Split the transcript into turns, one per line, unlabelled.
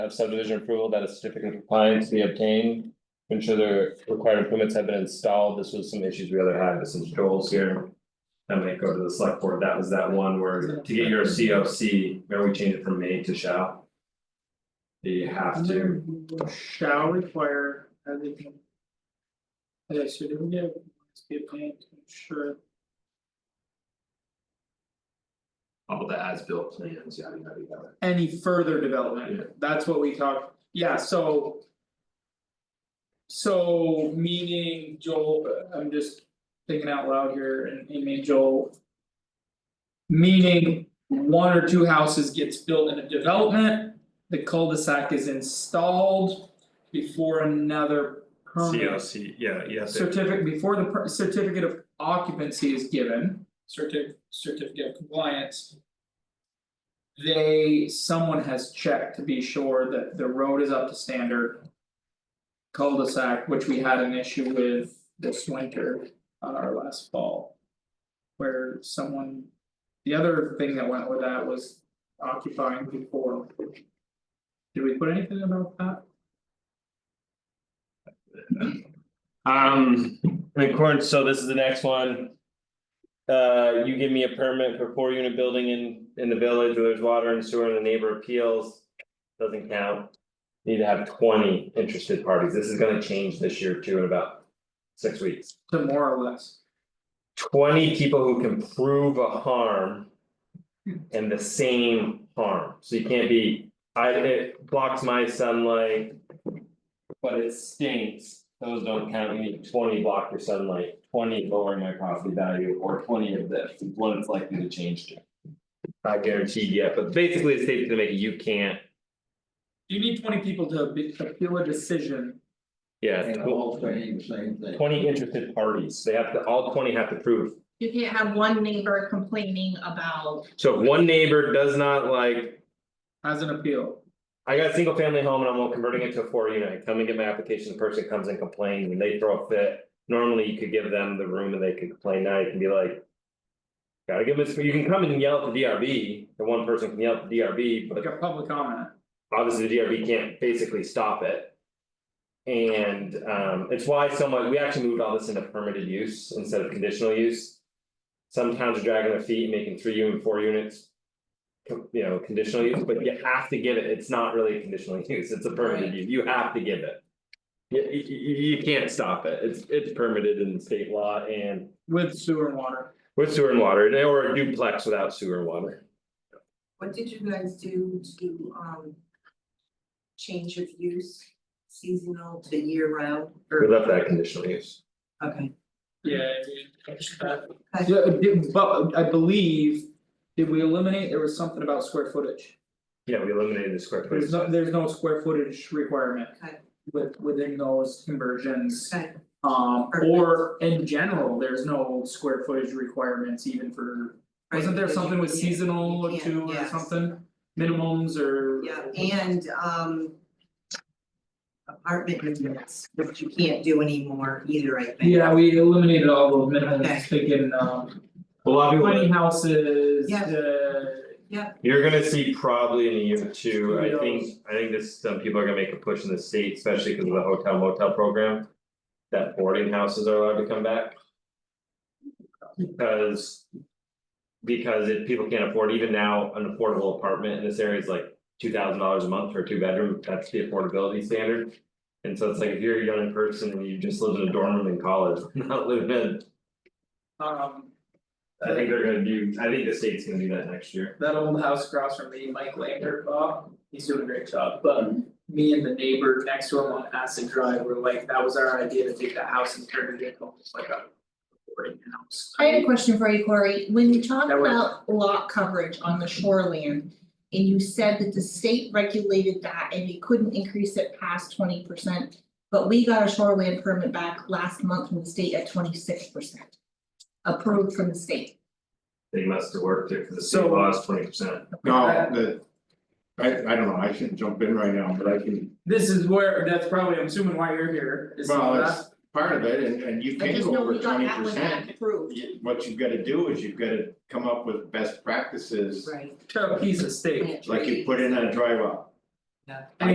of subdivision approval that a certificate of compliance be obtained. to Ensure the required improvements have been installed, this was some issues we other had, this is Joel's here. That might go to the select board, that was that one where to get your C O C, remember we changed it from may to shall? You have to,
Shall require everything. Okay, so do we get, must be a plan to ensure,
all the as-built plans, yada, yada, yada.
any further development, that's what we talked, yeah, so. So meaning Joel, I'm just thinking out loud here and and me and Joel. Meaning one or two houses gets built in a development, the cul-de-sac is installed before another permit.
C O C, yeah, yeah.
Certificate, before the per- certificate of occupancy is given, certi- certificate of compliance. They, someone has checked to be sure that the road is up to standard. Cul-de-sac, which we had an issue with this winter on our last fall. Where someone, the other thing that went with that was occupying before. Did we put anything about that?
um, in accordance, so this is the next one. Uh, you give me a permit for four unit building in in the village where there's water and sewer and the neighbor appeals. Doesn't count. Need to have twenty interested parties, this is gonna change this year too in about six weeks.
To more or less,
Twenty people who can prove a harm. And the same harm, so you can't be, I it blocks my sunlight. But it stinks, those don't count, you need twenty block your sunlight, twenty lowering my property value, or twenty of this, is what it's likely to change to. Not guaranteed yet, but basically the state's gonna make it, you can't,
you need twenty people to be- to appeal a decision.
yeah,
And
tw-
all saying the same thing.
twenty interested parties, they have to, all twenty have to prove
You can't have one neighbor complaining about,
So if one neighbor does not like,
As an appeal,
I got a single family home and I'm converting it to a four unit, I come and get my application, the person comes and complains and they throw a fit. Normally you could give them the room and they can complain, now you can be like. Gotta give this, you can come and yell at the DRB, the one person can yell at the DRB, but
like a public comment,
obviously the DRB can't basically stop it. And um it's why somewhat, we actually moved all this into permitted use instead of conditional use. Some towns are dragging their feet and making three unit, four units. co- You know, conditional use, but you have to give it, it's not really a conditional use, it's a permitted use, you have to give it. You you you- you can't stop it, it's it's permitted in state law and
with sewer and water,
with sewer and water, or a duplex without sewer and water.
What did you guys do to um? Change of use seasonal to year round
We
or,
left that conditional use.
okay,
yeah.
Okay.
Yeah, did- but I believe, did we eliminate, there was something about square footage,
Yeah, we eliminated the square footage.
there's no, there's no square footage requirement.
Okay.
With within those conversions,
okay,
um or in general, there's no square footage requirements even for. Wasn't there
Right, because you
something with
can't- you
seasonal or
can't,
two or
yes.
something, minimums or?
yeah, and um. Apartment units, which you can't do anymore either, I think.
Yeah, we eliminated all the minimums,
Okay.
thinking um.
A lot of people.
Twenty houses,
Yeah.
uh,
You're gonna see probably in a year or two, I
Studios.
think, I think this, some people are gonna make a push in the state, especially because of the hotel motel program. That boarding houses are allowed to come back. Because. Because if people can't afford, even now, an affordable apartment in this area is like two thousand dollars a month for a two bedroom, that's the affordability standard. And so it's like, if you're a young person and you just lived in a dorm room in college, not living in,
um.
I think they're gonna do, I think the state's gonna do that next year.
That old house across from me, Mike Lander, Bob, he's doing a great job, but me and the neighbor next to him on Acid Drive were like, that was our idea to take that house and turn it into almost like a. Boarding house.
I had a question for you, Corey, when you talk
That was-
about lot coverage on the shoreline. And you said that the state regulated that and they couldn't increase it past twenty percent. But we got a shoreline permit back last month from the state at twenty-six percent. Approved from the state.
They must have worked it, because the
So-
state law is twenty percent.
No, the. I I don't know, I shouldn't jump in right now, but I can,
This is where, that's probably, I'm assuming why you're here, is
well,
all that.
that's part of it, and and you
I
can't
just
go
know
over
we got
twenty
that one back
percent.
approved.
What you've gotta do is you've gotta come up with best practices,
Right.
To a piece of steak.
plant
like you
trees.
put in a dry well.